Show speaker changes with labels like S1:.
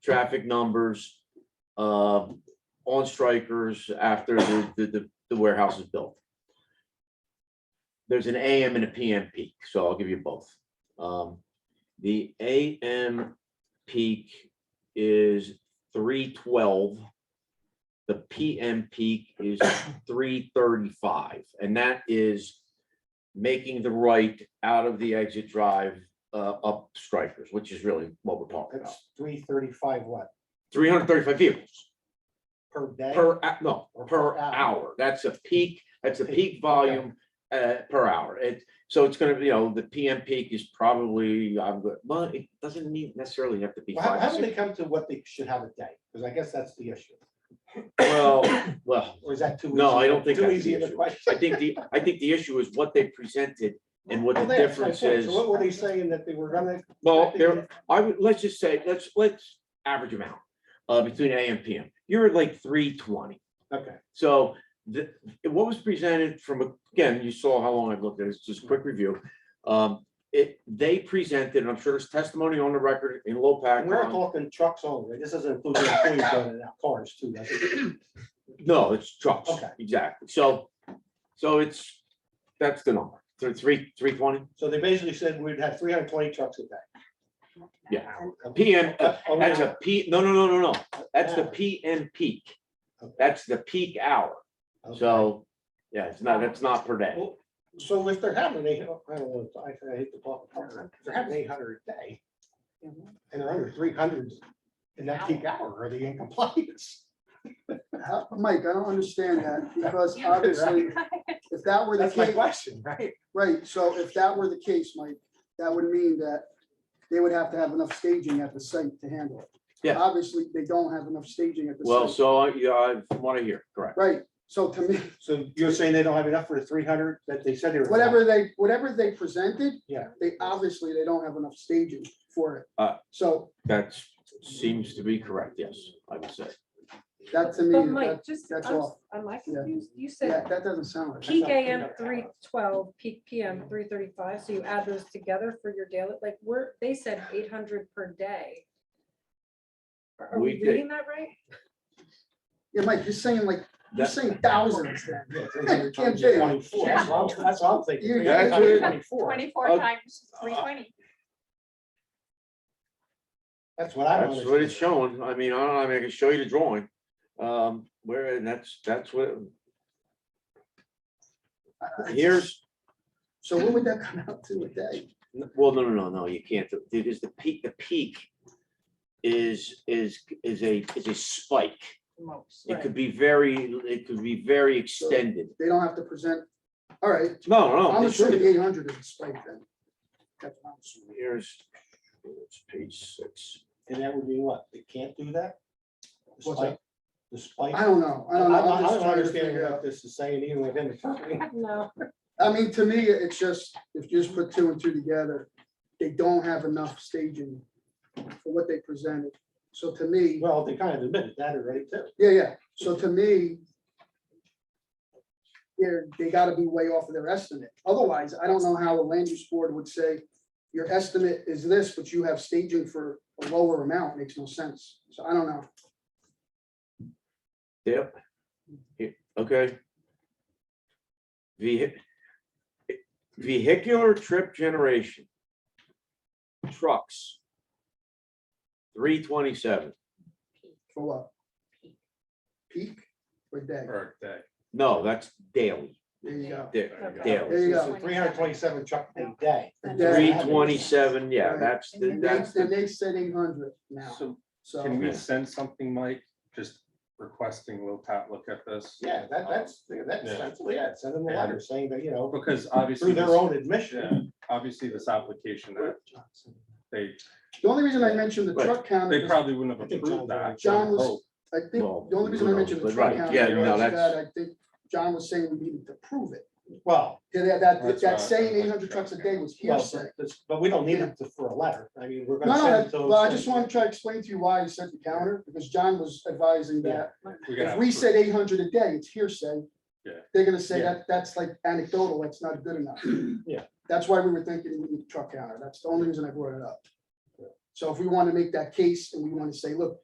S1: traffic numbers, uh, on strikers after the, the- the, the warehouse is built. There's an AM and a PM peak, so I'll give you both. Um, the AM peak is three twelve. The PM peak is three thirty-five, and that is making the right out of the exit drive, uh, up strikers, which is really what we're talking about.
S2: That's three thirty-five what,
S1: Three hundred thirty-five vehicles.
S2: per day?
S1: Per, hou- no,
S2: Or
S1: per
S2: per hour.
S1: hour. That's a peak, that's a
S2: Peak,
S1: peak volume uh, per hour. It, so it's gonna be, you know, the PM peak is probably, I'm, go- well, it doesn't need necessarily have to be
S2: Well, How,
S1: five.
S2: how
S1: or
S2: do they
S1: six.
S2: come to what they should have a day? Because I guess that's the issue.
S1: Well, well,
S2: Or is that too?
S1: No,
S2: easy-
S1: I don't think
S2: Too
S1: that's the
S2: easy of a
S1: issue.
S2: question.
S1: I think the, I think the issue is what they presented and what the
S2: Well, that's my
S1: difference
S2: point.
S1: is. Oh,
S2: So what were they saying that they were gonna?
S1: Well,
S2: that they
S1: there,
S2: did?
S1: I would, let's just say, let's, let's average them out, uh, between A and PM. You're at like three twenty.
S2: Okay,
S1: So the, what was presented from, again, you saw how long I've looked at this, just a quick review. Um, it, they presented, and I'm sure there's testimony on the record in low
S2: And we're not
S1: pack.
S2: talking trucks only. This doesn't include the employees going in our cars too, does it?
S1: No, it's trucks.
S2: Okay.
S1: Exactly. So, so it's, that's the number, three, three, three twenty.
S2: So they basically said we'd have three hundred twenty trucks a day.
S1: Yeah.
S2: Okay.
S1: PM, uh,
S2: Oh,
S1: that's a P, no, no, no, no, no. That's the
S2: Hour.
S1: PM peak.
S2: Okay.
S1: That's the peak hour.
S2: okay.
S1: So, yeah, it's not, that's not per day.
S2: Well, So if they're having eight, I don't know, I I hate to call it, part-time, if they're having eight hundred a day. And they're under three hundred in that peak hour, are they in compliance?
S3: How- Uh, Mike, I don't understand that, because obviously, if that were the
S2: That's my
S3: case,
S2: question, right?
S3: right, so if that were the case, Mike, that would mean that they would have to have enough staging at the site to handle it.
S1: Yeah.
S3: Obviously, they don't have enough staging at the
S1: Well,
S3: site,
S1: so, yeah, I want to hear, correct.
S3: right, so to me,
S2: So you're saying they don't have enough for the three hundred that they said they were. gonna have?
S3: whatever they, whatever they presented.
S2: Yeah.
S3: They obviously, they don't have enough staging for it,
S1: Uh.
S3: so
S1: That seems to be correct, yes, I would say.
S3: that to me,
S4: But
S3: that,
S4: Mike, just,
S3: that's
S4: I'm s-
S3: all.
S4: am I
S3: Yeah.
S4: confused? You
S3: yeah,
S4: said
S3: that doesn't sound right.
S4: peak
S2: not three
S4: AM
S2: hundred
S4: three twelve, peak PM three thirty-five, so you add those together for your daily, like, we're, they said eight hundred per day. Are are
S1: We
S4: we
S1: did.
S4: reading that right?
S3: Yeah, Mike, you're saying like, you're
S1: That-
S3: saying thousands then.
S2: Yeah, 300
S3: Can't
S2: times
S3: do it.
S2: 24. That's what I'm- that's what I'm thinking.
S3: You-
S2: 300 times
S1: That's it.
S2: 24.
S1: Uh,
S5: Twenty-four times three twenty.
S2: That's what I don't
S1: That's what it's
S2: understand.
S1: showing. I mean, I don't, know, I mean, I can show you the drawing. Um, where, and that's, that's what,
S3: I- I-
S1: here's,
S3: So what would that come out to a day?
S1: well, no, no, no, no, you can't. do- It is the peak, the peak is, is, is a, is a spike.
S4: Most.
S1: It could be very, it could be very extended.
S3: They don't have to present, all right,
S1: No, no.
S3: I'm
S1: they shouldn't.
S3: assuming eight hundred is a spike then. That's what I'm assuming.
S1: Here's, it's page six.
S2: And that would be what? They can't do that?
S3: What's
S2: Despite,
S3: that?
S2: despite.
S3: I don't know, I
S2: I
S3: don't know,
S2: I
S3: I'm just
S2: don't
S3: trying to
S2: understand
S3: figure
S2: what
S3: out.
S2: this is saying even within the company.
S4: No.
S3: I mean, to me, it's just, if you just put two and two together, they don't have enough staging for what they presented. So to me,
S2: Well, they kind of admitted that already too.
S3: yeah, yeah, so to me, they're, they gotta be way off of their estimate. Otherwise, I don't know how a land use board would say, your estimate is this, but you have staging for a lower amount, makes no sense. So I don't know.
S1: Yep. It- Okay. Vehi- Vehicular trip generation. Trucks. Three twenty-seven,
S3: For what? Peak or day?
S6: Per day.
S1: no, that's daily,
S3: There you go.
S1: da-
S6: There you go.
S1: daily,
S3: There you go.
S2: Three hundred twenty-seven truck a day.
S3: A
S1: three
S3: day.
S1: twenty-seven, yeah,
S3: Right.
S1: that's, the
S3: And they,
S1: that's,
S3: and
S1: the-
S3: they said eight hundred now,
S6: So can
S3: so,
S6: we send something, Mike, just requesting Will Pat look at this?
S2: Yeah, that, that's, that's,
S6: Yeah.
S2: that's, yeah, send them a letter saying that, you know,
S6: Because obviously,
S2: through their
S6: this-
S2: own
S6: yeah,
S2: admission.
S6: obviously this application that they,
S3: the only reason I mentioned the
S1: Right.
S3: truck count,
S6: they
S3: is-
S6: probably wouldn't
S2: I
S6: have
S2: think John-
S6: approved that.
S3: John was-
S6: Oh,
S3: I think,
S1: Well,
S3: the only reason I
S1: who
S3: mentioned the
S1: knows,
S3: truck
S1: right,
S3: count.
S1: yeah,
S3: is
S6: no,
S3: That I
S1: that's-
S3: think John was saying we needed to prove it,
S2: Well,
S3: Yeah, that, that,
S6: That's
S3: that
S6: right.
S3: saying eight hundred trucks a day was
S2: Well,
S3: hearsay.
S2: but this- but we don't need it to- for a letter. I mean, we're
S3: No,
S2: gonna
S3: no,
S2: send it
S3: that-
S2: to.
S3: well, I just want to try to explain to you why he said the counter, because John was advising that
S6: we're gonna
S3: if we
S6: have-
S3: said eight hundred a day, it's hearsay.
S6: Yeah.
S3: They're gonna say
S2: Yeah.
S3: that, that's like anecdotal, that's not good enough.
S2: Yeah.
S3: That's why we were thinking we need the truck counter, that's the only reason I brought it up. So if we want to make that case and we want to say, look,